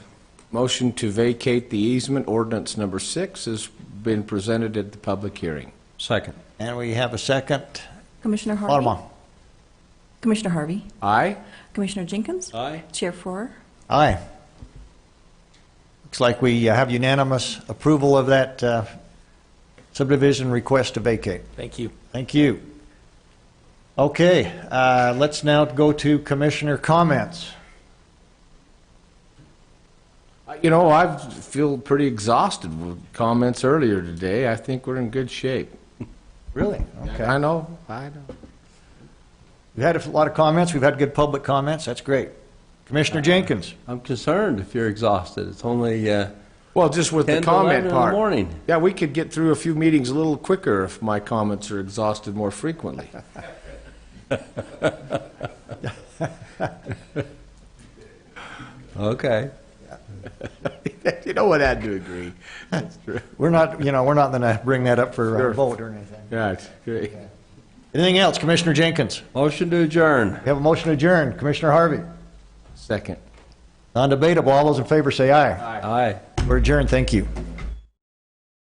Motion to vacate the easement, ordinance number six, has been presented at the public hearing. Second. And we have a second. Commissioner Harvey? Alderman. Commissioner Harvey? Aye? Commissioner Jenkins? Aye. Chair Four? Aye. Looks like we uh, have unanimous approval of that uh, subdivision request to vacate. Thank you. Thank you. Okay, uh, let's now go to commissioner comments. You know, I feel pretty exhausted with comments earlier today. I think we're in good shape. Really? I Okay. know, I know. We've had a lot of comments, we've had good public comments, that's great. Commissioner Jenkins? I'm concerned if you're exhausted. It's only uh, Well, just with 10 the to 11 comment in the part. morning. Yeah, we could get through a few meetings a little quicker if my comments are exhausted more frequently. Okay. You know what, I do agree. That's true. We're not, you know, we're not going to bring that up for Sure. a vote or anything. Right, great. Anything else, Commissioner Jenkins? Motion to adjourn. We have a motion to adjourn. Commissioner Harvey? Second. Non-debatable, all those in favor say aye. Aye. We're adjourned, thank you.